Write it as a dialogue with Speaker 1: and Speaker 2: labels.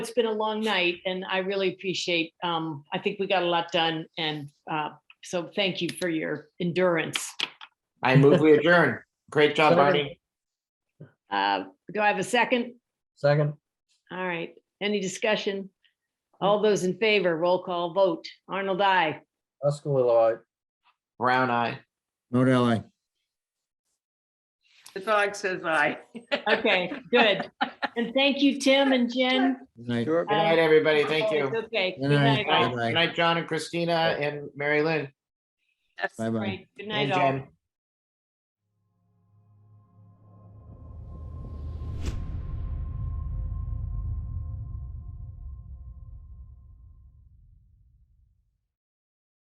Speaker 1: It's been a long night and I really appreciate, um, I think we got a lot done and, uh, so thank you for your endurance.
Speaker 2: I move we adjourn. Great job,
Speaker 3: Second.
Speaker 2: Barney.
Speaker 1: Uh, do I have a second?
Speaker 3: Second,
Speaker 1: All right, any discussion? All those in favor, roll call vote. Arnold, I.
Speaker 3: Uskalilowit.
Speaker 2: Brown eye.
Speaker 4: Vote aye.
Speaker 5: The dog says aye.
Speaker 1: Okay, good. And thank you, Tim and Jen.
Speaker 4: Good night.
Speaker 3: Sure.
Speaker 2: Good night, everybody. Thank you. Good
Speaker 1: Okay.
Speaker 4: Good
Speaker 1: Good night.
Speaker 4: night.
Speaker 1: all.
Speaker 2: night, Good night, John and Christina and Mary Lynn
Speaker 5: Yes.
Speaker 4: Bye-bye.
Speaker 1: Right, Good
Speaker 2: and
Speaker 1: night, all.
Speaker 2: Jen.